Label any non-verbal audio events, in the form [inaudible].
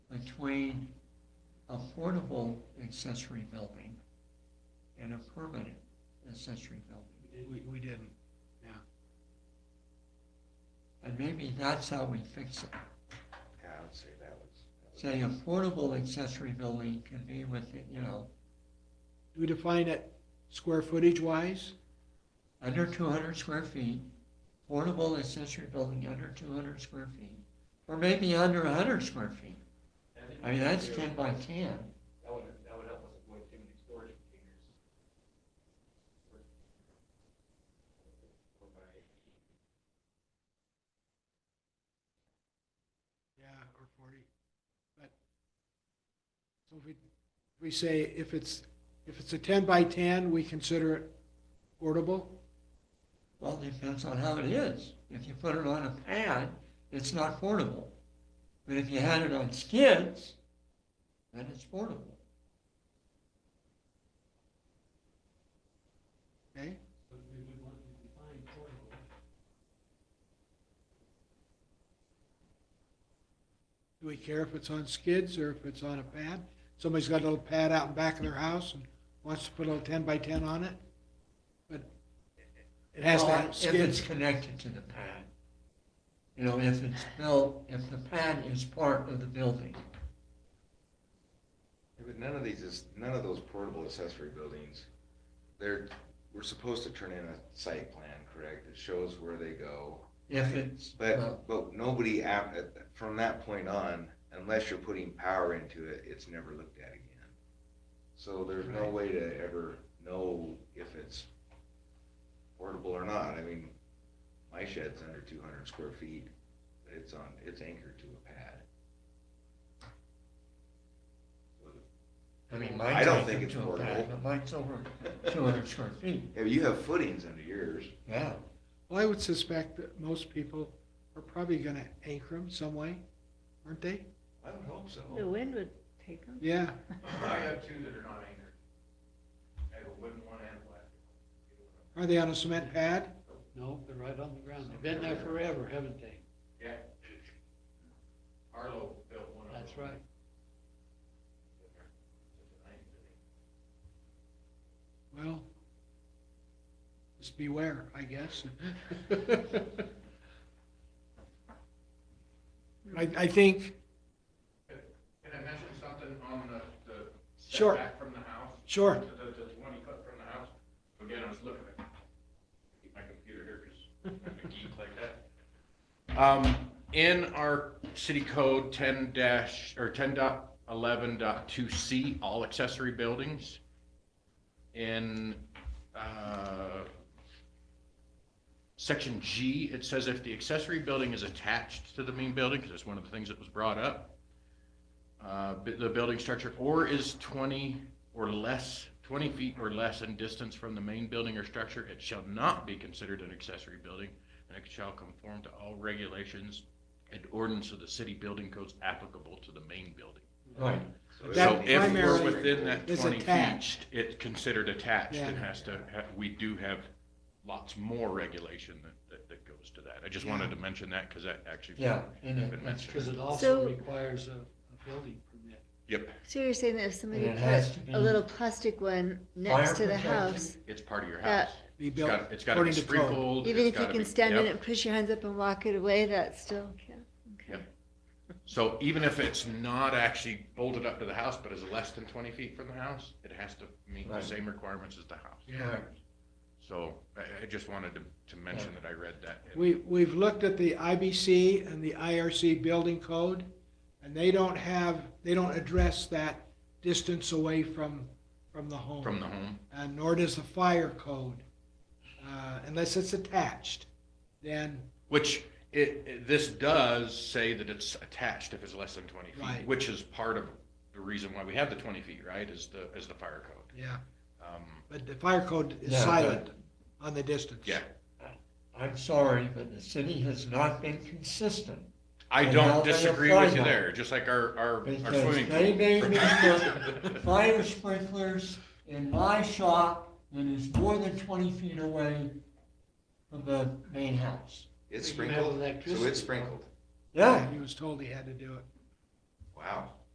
between affordable accessory building and a permanent accessory building. We, we didn't. And maybe that's how we fix it. Yeah, I would say that was. Say affordable accessory building can be with, you know, Do we define it square footage wise? under two hundred square feet, affordable accessory building under two hundred square feet, or maybe under hundred square feet. I mean, that's ten by ten. That would, that would help us avoid too many storage containers. Or by Yeah, or forty, but, so if we, we say if it's, if it's a ten by ten, we consider it portable? Well, it depends on how it is. If you put it on a pad, it's not portable. But if you had it on skids, then it's portable. Okay, But we would want to define portable. do we care if it's on skids or if it's on a pad? Somebody's got a little pad out in back of their house and wants to put a little ten by ten on it, but it has to Well, have If it's skids. connected to the pad. You know, if it's built, if the pad is part of the building. Yeah, But none of these is, none of those portable accessory buildings, they're, we're supposed to turn in a site plan, correct? It shows where they go. If it's, well, But, but nobody, ap- at- from that point on, unless you're putting power into it, it's never looked at again. So there's no way to ever know if it's portable or not. I mean, my shed's under two hundred square feet. It's on, it's anchored to a pad. I mean, I mine's don't think anchored it's to a pad, portable. but mine's over two hundred square feet, Yeah, you have footings under yours. yeah. Well, I would suspect that most people are probably gonna anchor them some way, aren't they? I would hope so. The wind would take them. Yeah, I have two that are not anchored. I have a wooden one and a plastic one. are they on a cement pad? No, they're right on the ground. They've been there forever, haven't they? Yeah. Arlo built one of them. That's right. Well, just beware, I guess. I, I think, Can I mention something on the, the Sure. setback from the house? sure, The, the twenty foot from the house, again, I was looking at, keep my computer here, cause I'm a geek like that. Um, in our city code ten dash, or ten dot eleven dot two C, all accessory buildings. In, uh, section G, it says if the accessory building is attached to the main building, because that's one of the things that was brought up. Uh, bu- the building structure, or is twenty or less, twenty feet or less in distance from the main building or structure, it shall not be considered an accessory building, and it shall conform to all regulations and ordinance of the city building codes applicable to the main building. Right. it That So would be- if we're primarily within that is twenty feet, attached. it's considered attached, and Yeah. has to, ha- we do have lots more regulation that, that, that goes to that. I just wanted to mention that, because that actually. Yeah, and it- been Because mentioned. it also So- requires a, a building permit. Yep, So you're saying that if somebody And it has to put be a little plastic one next fire to the protection. house, it's part of your That- house. be It's built got, it's got to be according to code. sprinkled. even it's if you gotta can be- stand in yep. it, push your hands up and walk it away, that's still, yeah, okay. Yep. So even if it's not actually bolted up to the house, but is less than twenty feet from the house, it has to meet the Right. same requirements as the house. Yeah. So I, I just wanted to, to mention that I read that. in- We, we've looked at the IBC and the IRC building code, and they don't have, they don't address that distance away from, from the home. From the home. and nor does the fire code, uh, unless it's attached, then, Which it, it- this does say that it's attached if it's less than twenty feet, Right. which is part of the reason why we have the twenty feet, right, is the, is the fire code. yeah, Um, but the fire code is Yeah, silent on the distance. yeah, I'm sorry, but the city has not been consistent. I And how don't they disagree apply with you that. there, just like our, our, our Because swimming they made me [laughs] pool. put fire sprinklers in my shop that is more than twenty feet away from the main house. It's But you have sprinkled, so electricity. it's sprinkled. Yeah, He was told he had to do it. Wow.